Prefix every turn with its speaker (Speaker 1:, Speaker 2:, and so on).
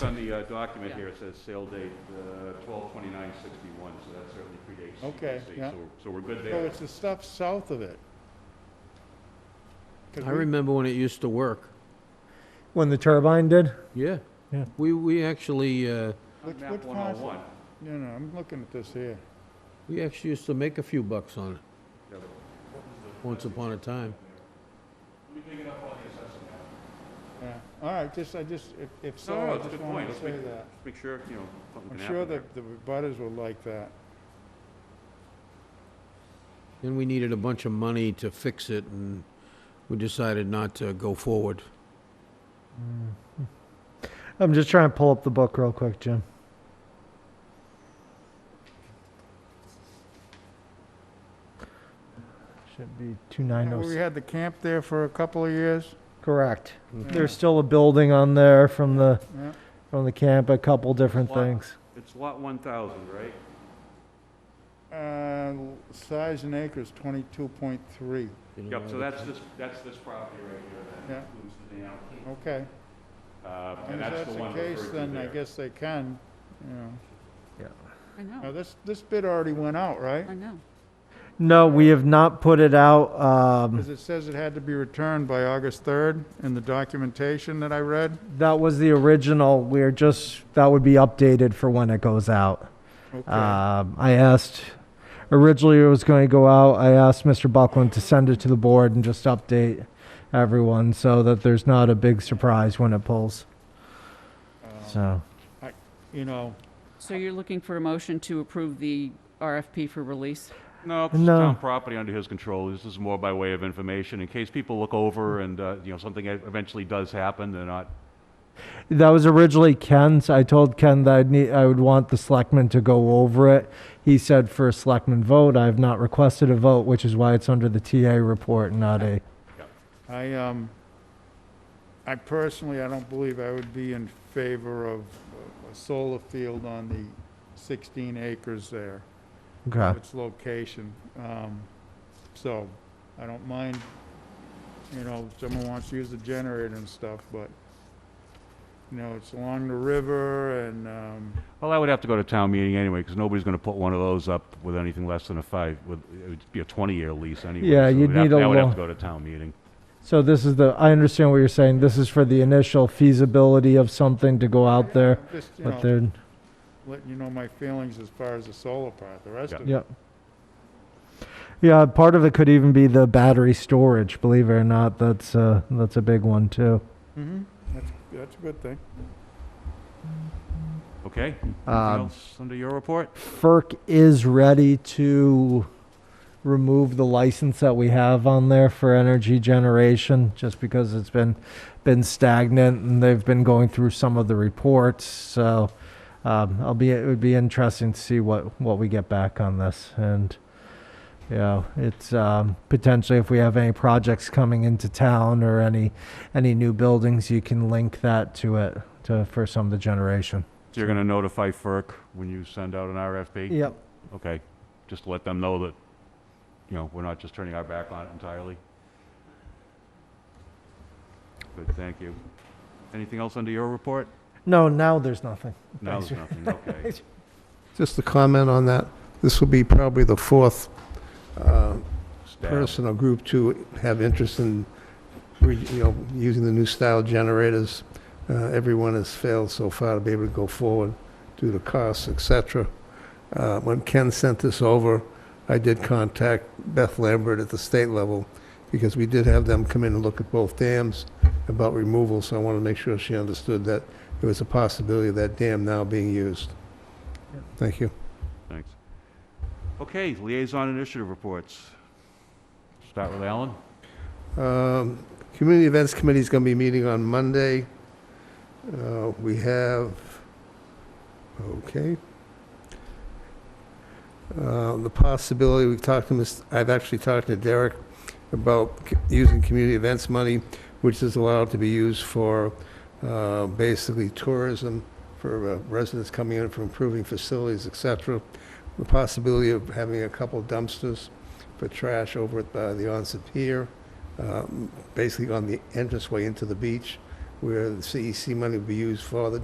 Speaker 1: On the uh, document here, it says sale date, uh, twelve twenty-nine sixty-one, so that certainly predates
Speaker 2: Okay,
Speaker 1: CPC,
Speaker 2: yeah.
Speaker 1: so we're- So we're good
Speaker 2: So
Speaker 1: there.
Speaker 2: it's the stuff south of it. 'Cause
Speaker 3: I
Speaker 2: we-
Speaker 3: remember when it used to work.
Speaker 4: When the turbine did?
Speaker 3: Yeah.
Speaker 4: Yeah.
Speaker 3: We, we actually, uh,
Speaker 1: On
Speaker 2: Which-
Speaker 1: map
Speaker 2: which
Speaker 1: one oh
Speaker 2: parcel?
Speaker 1: one,
Speaker 2: No, no, I'm looking at this here.
Speaker 3: we actually used to make a few bucks on it,
Speaker 1: let me
Speaker 3: once upon a time.
Speaker 1: dig it up on the assessment map,
Speaker 2: Yeah, all right, just, I just, if, if so,
Speaker 1: No, no,
Speaker 2: I
Speaker 1: it's a
Speaker 2: just
Speaker 1: good
Speaker 2: wanted
Speaker 1: point.
Speaker 2: to
Speaker 1: Let's
Speaker 2: say that.
Speaker 1: Just make sure, you know, something
Speaker 2: I'm
Speaker 1: can
Speaker 2: sure
Speaker 1: happen there.
Speaker 2: that the butters will like that.
Speaker 3: Then we needed a bunch of money to fix it, and we decided not to go forward.
Speaker 4: I'm just trying to pull up the book real quick, Jim. Should be
Speaker 2: Now, We
Speaker 4: 2906.
Speaker 2: had the camp there for a couple of years.
Speaker 4: Correct. There's
Speaker 2: Yeah.
Speaker 4: still a building on there from the,
Speaker 2: Yeah.
Speaker 4: from the camp, a couple different
Speaker 1: Lot.
Speaker 4: things.
Speaker 1: It's lot one thousand, right?
Speaker 2: Uh, size in acres, twenty-two point three,
Speaker 3: You know,
Speaker 1: Yep, so
Speaker 3: I-
Speaker 1: that's this, that's this property right here
Speaker 2: Yeah.
Speaker 1: that includes the dam.
Speaker 2: okay.
Speaker 1: Uh,
Speaker 2: And
Speaker 1: And
Speaker 2: if
Speaker 1: that's the one
Speaker 2: case,
Speaker 1: referred to
Speaker 2: Then I
Speaker 1: there.
Speaker 2: guess they can, you know.
Speaker 5: I
Speaker 2: Now,
Speaker 5: know,
Speaker 2: this, this bid already went out, right?
Speaker 5: I know.
Speaker 4: No, we have not put it out. Um,
Speaker 2: Because it says it had to be returned by August third in the documentation that I read.
Speaker 4: that was the original. We're just, that would be updated for when it goes out.
Speaker 2: Okay,
Speaker 4: Um, I asked, originally it was going to go out. I asked Mr. Buckland to send it to the board and just update everyone so that there's not a big surprise when it pulls.
Speaker 2: Uh,
Speaker 4: So,
Speaker 2: you know,
Speaker 5: So you're looking for a motion to approve the RFP for release?
Speaker 1: No, it's
Speaker 4: No.
Speaker 1: town property under his control. This is more by way of information, in case people look over and, uh, you know, something eventually does happen, they're not
Speaker 4: that was originally Ken's. I told Ken that I'd need, I would want the selectmen to go over it. He said for a selectman vote, I have not requested a vote, which is why it's under the TA report, not a,
Speaker 2: I, um, I personally, I don't believe I would be in favor of a solar field on the sixteen acres there,
Speaker 4: okay.
Speaker 2: its location. Um, so, I don't mind, you know, if someone wants to use the generator and stuff, but, you know, it's along the river and, um,
Speaker 1: Well, I would have to go to town meeting anyway, because nobody's going to put one of those up with anything less than a five, with, it would be a 20-year lease anyway.
Speaker 4: Yeah,
Speaker 1: so
Speaker 4: you'd
Speaker 1: it'd have-
Speaker 4: need a
Speaker 1: That would have
Speaker 4: lo-
Speaker 1: to go to town meeting.
Speaker 4: So this is the, I understand what you're saying. This is for the initial feasibility of something to go out there,
Speaker 2: just, you
Speaker 4: but
Speaker 2: know,
Speaker 4: they're,
Speaker 2: letting you know my feelings as far as the solar part, the rest
Speaker 1: Yeah.
Speaker 2: of it.
Speaker 4: Yep. Yeah, part of it could even be the battery storage. Believe it or not, that's uh, that's a big one too.
Speaker 2: Mm-hmm, that's, that's a good thing.
Speaker 1: Okay? Anything
Speaker 4: Um,
Speaker 1: else under your report?
Speaker 4: FERC is ready to remove the license that we have on there for energy generation, just because it's been been stagnant and they've been going through some of the reports. So um, I'll be it would be interesting to see what what we get back on this and. you know, it's um, potentially if we have any projects coming into town or any any new buildings, you can link that to it to for some of the generation.
Speaker 1: So you're going to notify FERC when you send out an RFP?
Speaker 4: Yep.
Speaker 1: Okay, just to let them know that, you know, we're not just turning our back on it entirely. Good, thank you. Anything else under your report?
Speaker 4: No, now there's nothing.
Speaker 1: No, there's nothing, okay.
Speaker 6: Just a comment on that. This will be probably the fourth uh,
Speaker 1: Staff,
Speaker 6: person or group to have interest in, re- you know, using the new style generators. Uh, Everyone has failed so far to be able to go forward due to costs, et cetera. Uh, When Ken sent this over, I did contact Beth Lambert at the state level because we did have them come in and look at both dams about removal, so I wanted to make sure she understood that there was a possibility of that dam now being used. Thank you.
Speaker 1: thanks. Okay, liaison initiative reports. Start with Alan.
Speaker 6: Um, Community Events Committee is going to be meeting on Monday. Uh, We have, okay. Uh, The possibility, we've talked to, Ms. I've actually talked to Derek about c- using community events money, which is allowed to be used for uh, basically tourism, for uh, residents coming in for improving facilities, et cetera. The possibility of having a couple dumpsters for trash over at uh, the Onset Pier um, basically on the entranceway into the beach, where the CEC money would be used for the